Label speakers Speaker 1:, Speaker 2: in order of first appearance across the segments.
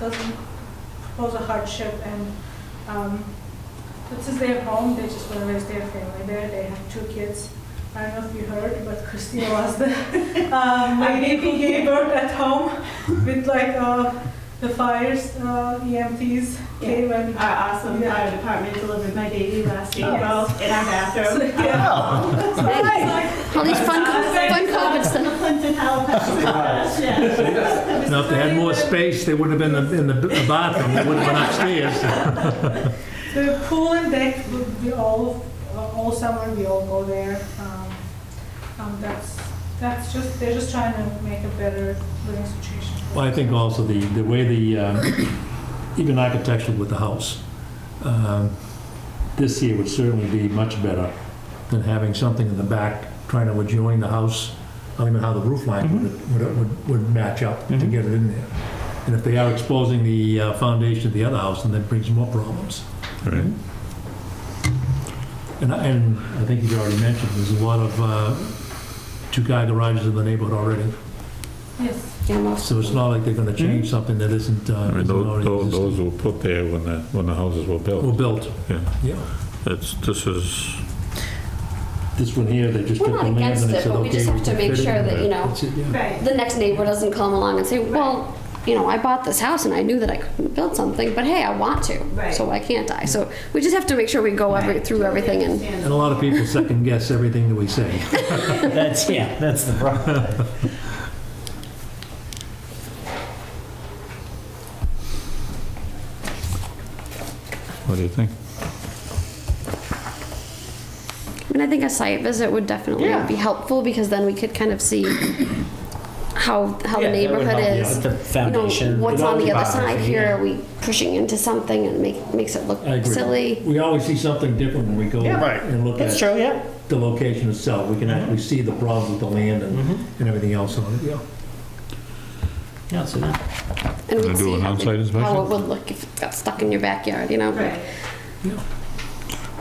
Speaker 1: doesn't pose a hardship and, um, this is their home, they just want to raise their family there, they have two kids. I don't know if you heard, but Christina was the, um, my baby gave birth at home with like, uh, the fires, uh, EMTs came and.
Speaker 2: Our awesome fire department delivered my baby last week,
Speaker 1: Yes.
Speaker 2: well, in our
Speaker 1: So,
Speaker 2: bathroom.
Speaker 1: yeah. So, like,
Speaker 3: All these fun,
Speaker 2: Honestly,
Speaker 3: fun COVID
Speaker 2: it's
Speaker 3: stuff.
Speaker 2: on Clinton, Halifax. Yeah.
Speaker 4: Now, if they had more space, they wouldn't have been in the in the bathroom, they would have been upstairs.
Speaker 1: The pool and deck, we- we all, all summer, we all go there. Um, um, That's, that's just, they're just trying to make a better living situation. for
Speaker 4: Well, I think also the, the way the, um, even architectural with the house, um, this here would certainly be much better than having something in the back trying to adjoin the house. I don't even know how the roof line would, would, would, would match up to
Speaker 5: Mhm.
Speaker 4: get it in there. And if they are exposing the uh, foundation of the other house, then that brings more problems. Mm-hmm.
Speaker 5: Right.
Speaker 4: And, I- and I think you already mentioned, there's a lot of, uh, two-car garages in the neighborhood already.
Speaker 1: Yes,
Speaker 4: So it's not like they're
Speaker 3: Hmm?
Speaker 4: gonna change something that isn't,
Speaker 5: I
Speaker 4: uh,
Speaker 5: mean,
Speaker 4: isn't
Speaker 5: those,
Speaker 4: already
Speaker 5: those-
Speaker 4: existing.
Speaker 5: those were put there when the, when the houses were
Speaker 4: Or
Speaker 5: built.
Speaker 4: built,
Speaker 5: Yeah,
Speaker 4: yeah.
Speaker 5: that's, this is,
Speaker 4: This one here, they just
Speaker 3: We're
Speaker 4: took the
Speaker 3: not
Speaker 4: land and
Speaker 3: against
Speaker 4: they
Speaker 3: it,
Speaker 4: said,
Speaker 3: but we
Speaker 4: okay,
Speaker 3: just have to
Speaker 4: can
Speaker 3: make
Speaker 4: fit it
Speaker 3: sure
Speaker 4: in
Speaker 3: that,
Speaker 4: there."
Speaker 3: you know,
Speaker 4: That's it, yeah.
Speaker 2: Right.
Speaker 3: the next neighbor doesn't come along and say, well, you know, I bought this house and I knew that I couldn't build something, but hey, I want to.
Speaker 2: Right.
Speaker 3: So why can't I? So we just have to make sure we go every, through everything and,
Speaker 4: And a lot of people second guess everything that we say.
Speaker 6: That's, yeah, that's the problem.
Speaker 5: what do you think?
Speaker 3: I mean, I think a site visit would definitely
Speaker 6: Yeah.
Speaker 3: be helpful because then we could kind of see how, how the
Speaker 6: Yeah, that would
Speaker 3: neighborhood
Speaker 6: help, yeah,
Speaker 3: is.
Speaker 6: with The
Speaker 3: You know,
Speaker 6: foundation.
Speaker 3: what's
Speaker 6: with
Speaker 3: on the other
Speaker 6: topography,
Speaker 3: side here? Are we pushing into something and make, makes it look
Speaker 4: I agree.
Speaker 3: silly?
Speaker 4: We always see something different when we go
Speaker 6: Yeah. Right.
Speaker 4: and look
Speaker 6: That's
Speaker 4: at
Speaker 6: true, yeah.
Speaker 4: the location itself. We can
Speaker 3: Mm-hmm.
Speaker 4: actually see the problems with the land and, and everything else on it, yeah.
Speaker 6: Yeah, so that-
Speaker 3: And
Speaker 5: Gonna
Speaker 3: we'd
Speaker 5: do
Speaker 3: see
Speaker 5: an
Speaker 3: how the-
Speaker 5: outside inspection?
Speaker 3: How it would look if it got stuck in your backyard, you know?
Speaker 2: Right.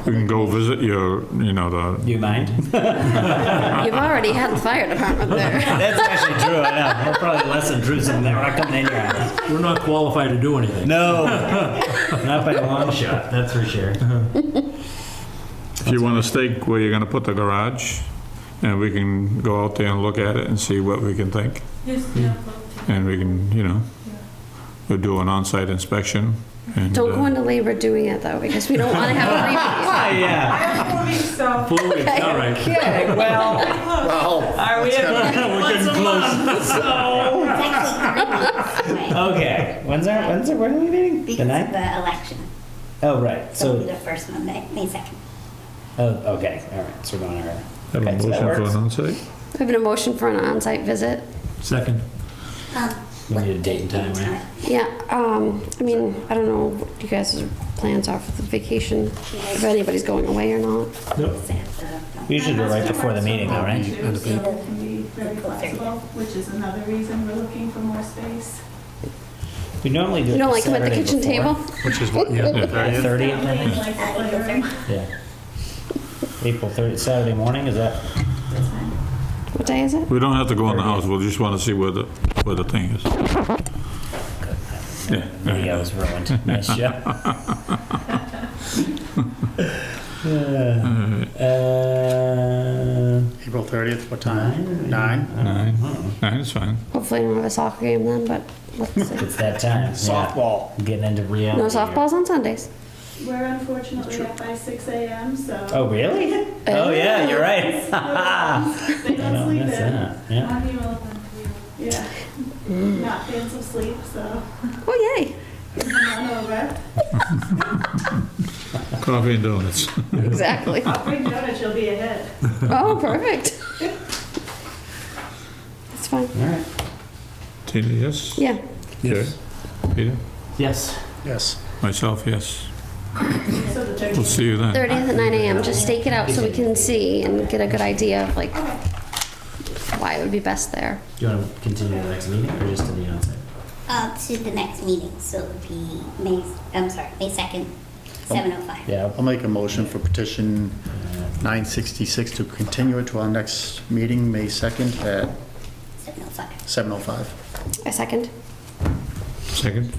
Speaker 5: We can go visit your, you know, the,
Speaker 6: You mind?
Speaker 3: You've already had the fire department there.
Speaker 6: That's actually true, I know. We're probably less intrusive than we're coming in here. on.
Speaker 4: We're not qualified to do anything.
Speaker 6: No, not by a long shot, that's for sure.
Speaker 5: if you want to stake where you're going to put the garage, and we can go out there and look at it and see what we can think.
Speaker 1: yes,
Speaker 6: Hmm.
Speaker 1: yeah. but-
Speaker 5: And we can, you know, we'll do an on-site inspection and.
Speaker 3: Don't
Speaker 5: uh,
Speaker 3: go into labor doing it though, because we don't want to have
Speaker 6: Ah,
Speaker 1: I
Speaker 6: yeah.
Speaker 1: have four weeks, so
Speaker 4: Four weeks, all right.
Speaker 6: Yeah, well,
Speaker 7: Well,
Speaker 6: are we ever, once a month, so.
Speaker 8: Right.
Speaker 6: Okay, when's our, when's our, when are we meeting? Uh, The
Speaker 8: Because of
Speaker 6: ninth?
Speaker 8: the election,
Speaker 6: Oh, right,
Speaker 8: so
Speaker 6: so,
Speaker 8: the first Monday, May 2nd.
Speaker 6: oh, okay, all right, so we're going early.
Speaker 5: Have a
Speaker 6: Okay, so
Speaker 5: motion
Speaker 6: that
Speaker 5: for
Speaker 6: works.
Speaker 5: an on-site?
Speaker 3: a We have an motion for an on-site visit.
Speaker 4: Second.
Speaker 8: Um,
Speaker 6: We need a date and time, right?
Speaker 3: Yeah, um, I mean, I don't know what you guys' plans are for the vacation, if anybody's going away or not.
Speaker 8: it's at the-
Speaker 6: We usually do it right before the meeting though, right?
Speaker 2: Too, so it can be very flexible, which is another reason we're looking for more space.
Speaker 6: We normally do it
Speaker 3: You don't like them at the
Speaker 6: Saturday
Speaker 3: kitchen
Speaker 6: before.
Speaker 3: table?
Speaker 5: Which is what, yeah.
Speaker 6: April 30th, I think.
Speaker 2: Like the
Speaker 8: Uh,
Speaker 2: playroom.
Speaker 6: Yeah. April 30th, Saturday morning, is that?
Speaker 2: That's fine.
Speaker 3: What day is it?
Speaker 5: We don't have to go in the house, we'll just want to see where the, where the thing is. Yeah.
Speaker 6: Yeah, I was ruined. Nice job. Uh, uh,
Speaker 7: April 30th, what
Speaker 6: Nine.
Speaker 7: time? Nine?
Speaker 5: Nine, nine is fine.
Speaker 3: Hopefully we don't have a soccer game then, but let's see.
Speaker 6: it's that time. yeah.
Speaker 7: Softball.
Speaker 6: Getting into reality.
Speaker 3: No
Speaker 6: here.
Speaker 3: softballs on Sundays.
Speaker 2: We're unfortunately up by 6 a.m., so
Speaker 6: Oh, really? Oh, yeah, you're right.
Speaker 2: they
Speaker 6: I
Speaker 2: don't
Speaker 6: don't
Speaker 2: sleep
Speaker 6: miss
Speaker 2: in.
Speaker 6: that. Yeah.
Speaker 1: I'm irrelevant to you.
Speaker 2: Yeah. Not fans of sleep, so
Speaker 3: Oh, yay.
Speaker 2: come on over.
Speaker 5: Coffee and donuts.
Speaker 3: Exactly.
Speaker 2: I'll bring donuts, you'll be ahead.
Speaker 3: Oh, perfect. That's fine.
Speaker 6: All right.
Speaker 5: Tina, yes?
Speaker 3: Yeah.
Speaker 4: Yes.
Speaker 5: Peter?
Speaker 6: Yes.
Speaker 7: Yes.
Speaker 5: Myself, yes.
Speaker 2: So the 13th.
Speaker 5: We'll see you then.
Speaker 3: 30th at 9 a.m. Just stake it out so we can see and get a good idea of like why it would be best there.
Speaker 6: Do you want to continue the next meeting or just to the onset?
Speaker 8: Uh, to the next meeting, so it'll be May, I'm sorry, May oh 2nd, 7:05.
Speaker 6: Yeah.
Speaker 7: I'll make a motion for petition 966 to continue it to our next meeting, May 2nd at
Speaker 8: 7:05.
Speaker 7: 7:05.
Speaker 3: A second.
Speaker 5: Second?